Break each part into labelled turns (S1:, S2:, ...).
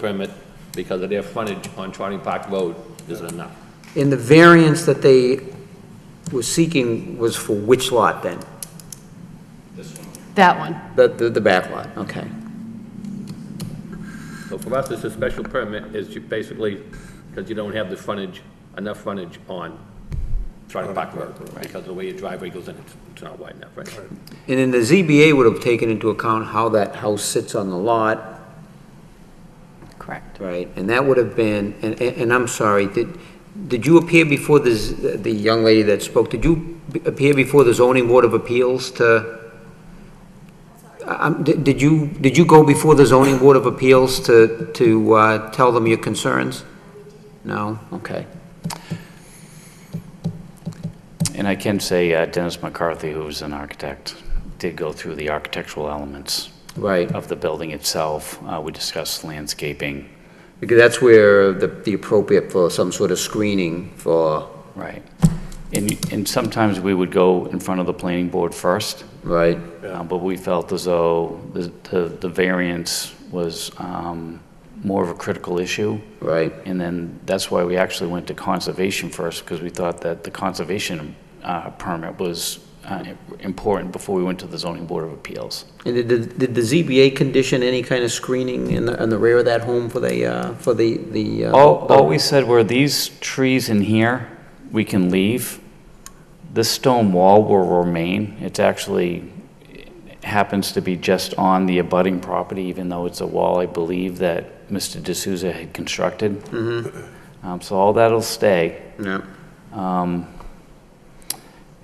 S1: permit because of their frontage on Trotting Park Road isn't enough.
S2: And the variance that they were seeking was for which lot then?
S3: That one.
S2: The, the, the back lot, okay.
S1: So for us, it's a special permit is you basically, because you don't have the frontage, enough frontage on Trotting Park Road because the way your driveway goes in, it's- it's not wide enough, right?
S2: And then the ZBA would have taken into account how that house sits on the lot,
S3: Correct.
S2: right? And that would have been, and, and and I'm sorry, did, did you appear before the, z- the young lady that spoke, did you b- appear before the zoning board of appeals to? I- I'm, did did you, did you go before the zoning board of appeals to, to, uh, tell them your concerns? No, okay.
S4: And I can say uh, Dennis McCarthy, who was an architect, did go through the architectural elements
S2: Right.
S4: of the building itself. Uh, We discussed landscaping,
S2: Because that's where the, the appropriate for some sort of screening for,
S4: right? And and sometimes we would go in front of the planning board first,
S2: right?
S4: uh, but we felt as though the- the the variance was um, more of a critical issue.
S2: Right,
S4: And then that's why we actually went to conservation first, because we thought that the conservation uh, permit was uh, important before we went to the zoning board of appeals.
S2: and did, the- did the ZBA condition any kind of screening in the, in the rear of that home for the, uh, for the, the? uh,
S4: All, all we said were these trees in here, we can leave. This stone wall will remain. It's actually, it happens to be just on the abutting property, even though it's a wall, I believe, that Mr. D'Souza had constructed. Um, so all that'll stay.
S2: No,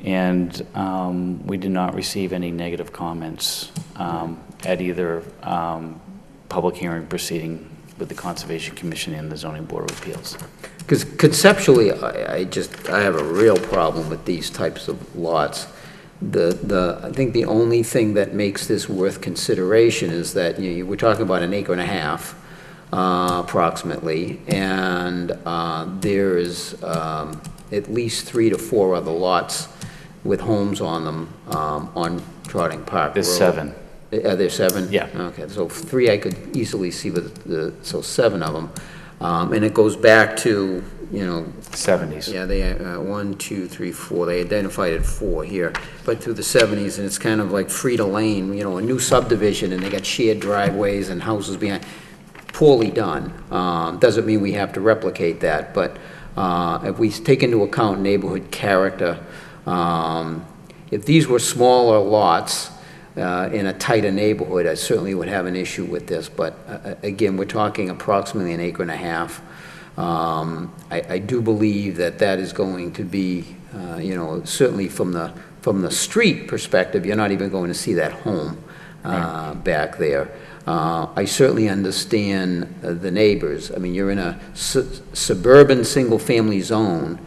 S4: And um, we did not receive any negative comments um, at either um, public hearing proceeding with the Conservation Commission and the Zoning Board of Appeals.
S2: because conceptually, I, I just, I have a real problem with these types of lots. The, the, I think the only thing that makes this worth consideration is that, you know, we're talking about an acre and a half, uh, approximately, and, uh, there is, um, at least three to four other lots with homes on them, um, on Trotting Park
S4: There's
S2: Road.
S4: seven.
S2: Are there seven?
S4: Yeah.
S2: Okay, so three I could easily see, but the, so seven of them. Um, and it goes back to, you know,
S4: 70s.
S2: yeah, they, uh, one, two, three, four, they identified it four here, but through the seventies, and it's kind of like Frida Lane, you know, a new subdivision, and they got shared driveways and houses behind. Poorly done. Um, doesn't mean we have to replicate that, but, uh, if we take into account neighborhood character, um, if these were smaller lots, uh, in a tighter neighborhood, I certainly would have an issue with this, but, uh, again, we're talking approximately an acre and a half. Um, I, I do believe that that is going to be, uh, you know, certainly from the, from the street perspective, you're not even going to see that home uh, back there. Uh, I certainly understand uh, the neighbors. I mean, you're in a su- suburban, single-family zone,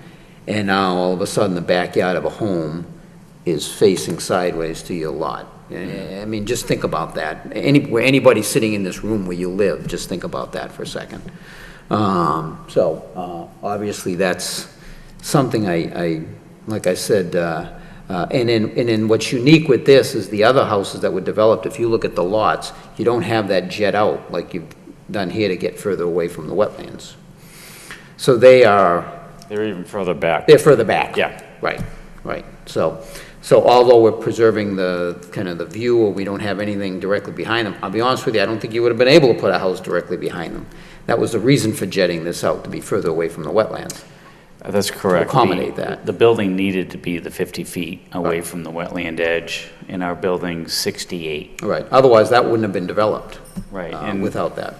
S2: and now all of a sudden, the backyard of a home is facing sideways to your lot. I mean, just think about that. Any, where anybody sitting in this room where you live, just think about that for a second. Um, so, uh, obviously, that's something I, I, like I said, uh, uh, and then, and then what's unique with this is the other houses that were developed, if you look at the lots, you don't have that jet out like you've done here to get further away from the wetlands. So they are,
S4: They're even further back.
S2: they're further back.
S4: Yeah.
S2: Right, right. So, so although we're preserving the, kind of the view, or we don't have anything directly behind them, I'll be honest with you, I don't think you would have been able to put a house directly behind them. That was the reason for jetting this out, to be further away from the wetlands.
S4: Uh, That's correct.
S2: accommodate
S4: The-
S2: that.
S4: The building needed to be the 50 feet away from the wetland edge, and our building's 68.
S2: Right, otherwise that wouldn't have been developed.
S4: Right,
S2: uh,
S4: and-
S2: Without that.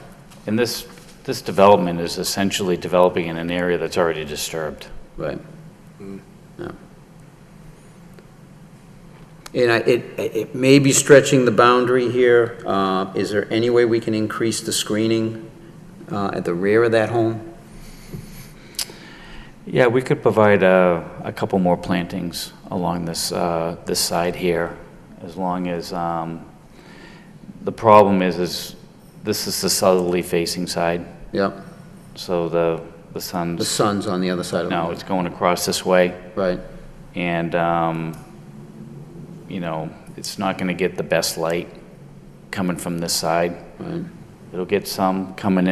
S4: And this, this development is essentially developing in an area that's already disturbed.
S2: Right.
S4: Mm.
S2: Yeah. And I, it, it may be stretching the boundary here. Uh, is there any way we can increase the screening, uh, at the rear of that home?
S4: Yeah, we could provide uh, a couple more plantings along this, uh, this side here, as long as, um, the problem is, is this is the southerly facing side,
S2: Yep,
S4: so the, the
S2: the
S4: sun's,
S2: sun's on the other side of the
S4: no,
S2: road.
S4: it's going across this way.
S2: Right,
S4: and um, you know it's not going to get the best light coming from this side
S2: right.
S4: it'll get some coming in